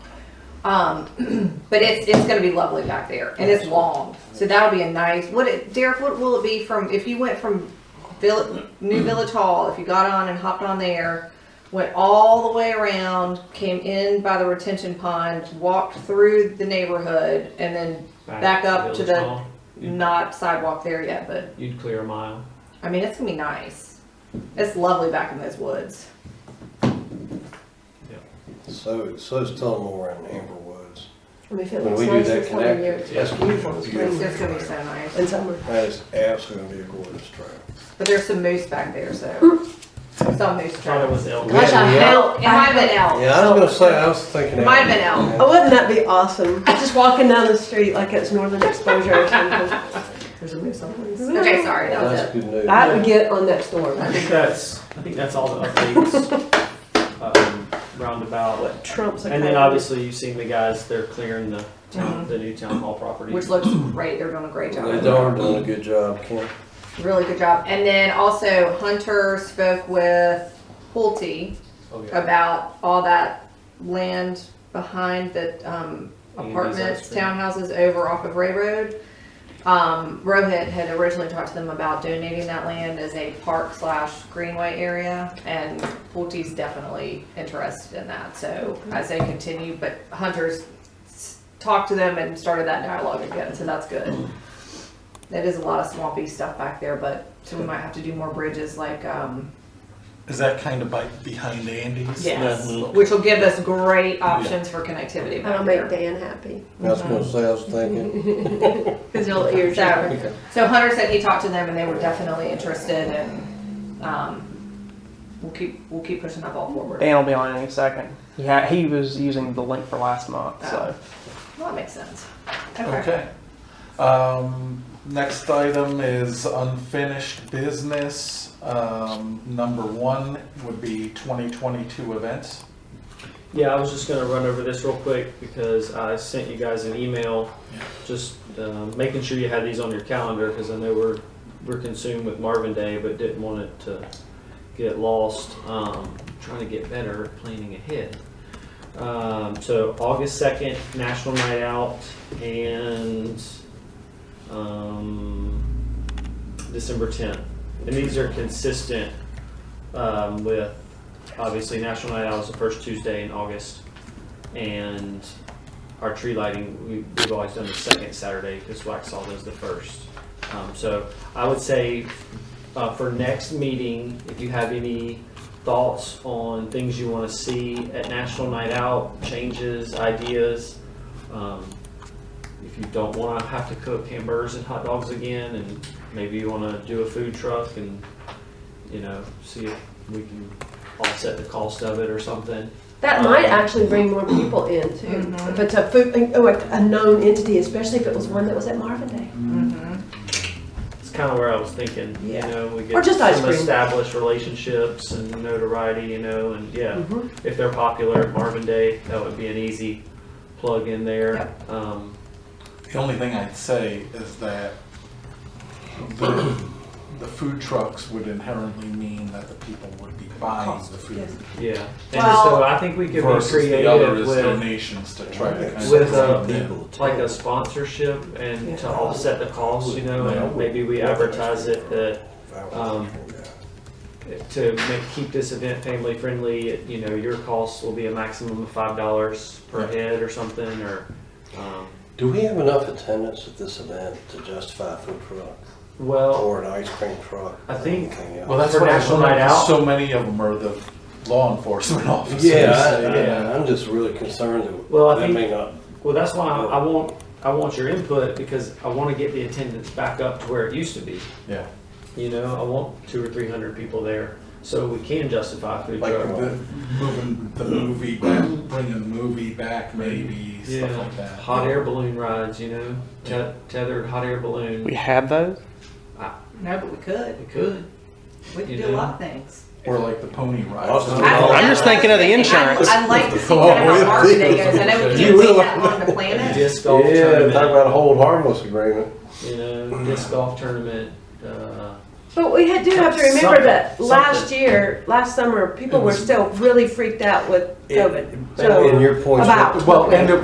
Um, but it's, it's gonna be lovely back there and it's long. So that'll be a nice, what it, Derek, what will it be from, if you went from Village, New Village Hall, if you got on and hopped on there, went all the way around, came in by the retention pond, walked through the neighborhood and then Back up to Village the- Hall. not sidewalk there yet, but You'd clear a mile. I mean, it's gonna be nice. It's lovely back in those woods. So, so is Tullamore and Amber Woods. I mean, if it When looks we do nice that this time of connect- year. That's beautiful. It's just gonna be so nice. In summer. That is absolutely gonna be a gorgeous trail. But there's some moose back there, so. Some moose I thought it trail. was elk. Gosh, I Yeah. hope. It might have been elk. Yeah, I was gonna say, I was thinking. It might have been elk. Oh, wouldn't that be awesome? Just walking down the street like it's northern exposure or something. There's a moose on one side. Okay, sorry, that was That's it. good news. I would get on that storm. I think that's, I think that's all the updates, um, roundabout. Trump's a And then coward. obviously you've seen the guys, they're clearing the town, the new town hall property. Mm-hmm. Which looks great, they're doing a great job. They darn done a good job, Ken. Really good job. And then also Hunter spoke with Pulte Oh, yeah. about all that land behind the um, Amy's apartments, ice cream. townhouses over off of Ray Road. Um, Rohit had originally talked to them about donating that land as a park slash greenway area, and Pulte's definitely interested in that. So as they continue, but Hunter's s- talked to them and started that dialogue again, so that's good. That is a lot of swampy stuff back there, but so we might have to do more bridges like um, Is that kind of by, behind Andy's? Yes, That loop? which will give us great options for connectivity back That'll make there. Dan happy. I was gonna say, I was thinking. His little ears. So, so Hunter said he talked to them and they were definitely interested and, um, we'll keep, we'll keep pushing that ball forward. Dan will be on any second. He ha- he was using the link for last month, so Well, that makes sense. Okay. Okay. Um, next item is unfinished business. Um, number one would be 2022 events. Yeah, I was just gonna run over this real quick because I sent you guys an email, Yeah. just uh, making sure you had these on your calendar because I know we're we're consumed with Marvin Day, but didn't want it to get lost. Um, trying to get better at planning ahead. Um, so August second, National Night Out, and um, December tenth, and these are consistent um, with obviously National Night Out is the first Tuesday in August, and our tree lighting we, we've always done the second Saturday because Waxhaw does the first. Um, so I would say uh, for next meeting, if you have any thoughts on things you want to see at National Night Out, changes, ideas. Um, if you don't want to have to cook hamburgers and hot dogs again, and maybe you want to do a food truck and you know see if we can offset the cost of it or something. That Um, might actually bring more people in too. Mhm. If it's a food, oh, a a known entity, especially if it was one that was at Marvin Day. Mhm. It's kind of where I was thinking. Yeah. You know, we get Or just ice some cream. established relationships and notoriety. You know, and yeah, Mhm. if they're popular, Marvin Day, that would be an easy plug in there. Um, The only thing I'd say is that the, the food trucks would inherently mean that the people would be buying the food yes. yeah, and Well- so I think we could be versus the other creative is with donations to try to kind with, of. uh, like a sponsorship and to offset the cost. You know, and maybe we advertise it that Um, to make, keep this event family friendly, you know, your cost will be a maximum of five dollars per Right. head or something, or, um, Do we have enough attendance at this event to justify a food truck well, or an ice cream truck? I or think- anything else? Well, that's For what National National Night Night Out? So many of them are the law enforcement officers. Yeah, you I- know. yeah, I'm just really concerned that. Well, I that think- may not- well, that's why I I want, I want your input, because I wanna get the attendance back up to where it used to be. Yeah. You know, I want two or three hundred people there, so we can justify a food Like truck. the, moving the movie back, bringing the movie back, maybe stuff Yeah, like that. hot air balloon rides, you know, te- tethered hot air we balloon, have those. No, but we could. we could. We could do a lot of things. or like the pony ride. Awesome. I- I'm just thinking of the I- insurance. I'd like to see kind of how Marvin Day goes. I know we can't You see will. that on the planet. Disc golf Yeah, tournament. talk about a hold harmless agreement. you know, disc golf tournament. Uh, But we had- do have to remember Something, that last something. year, last summer, people It were was- still really freaked out with COVID. So- And your point's. about- Well, and it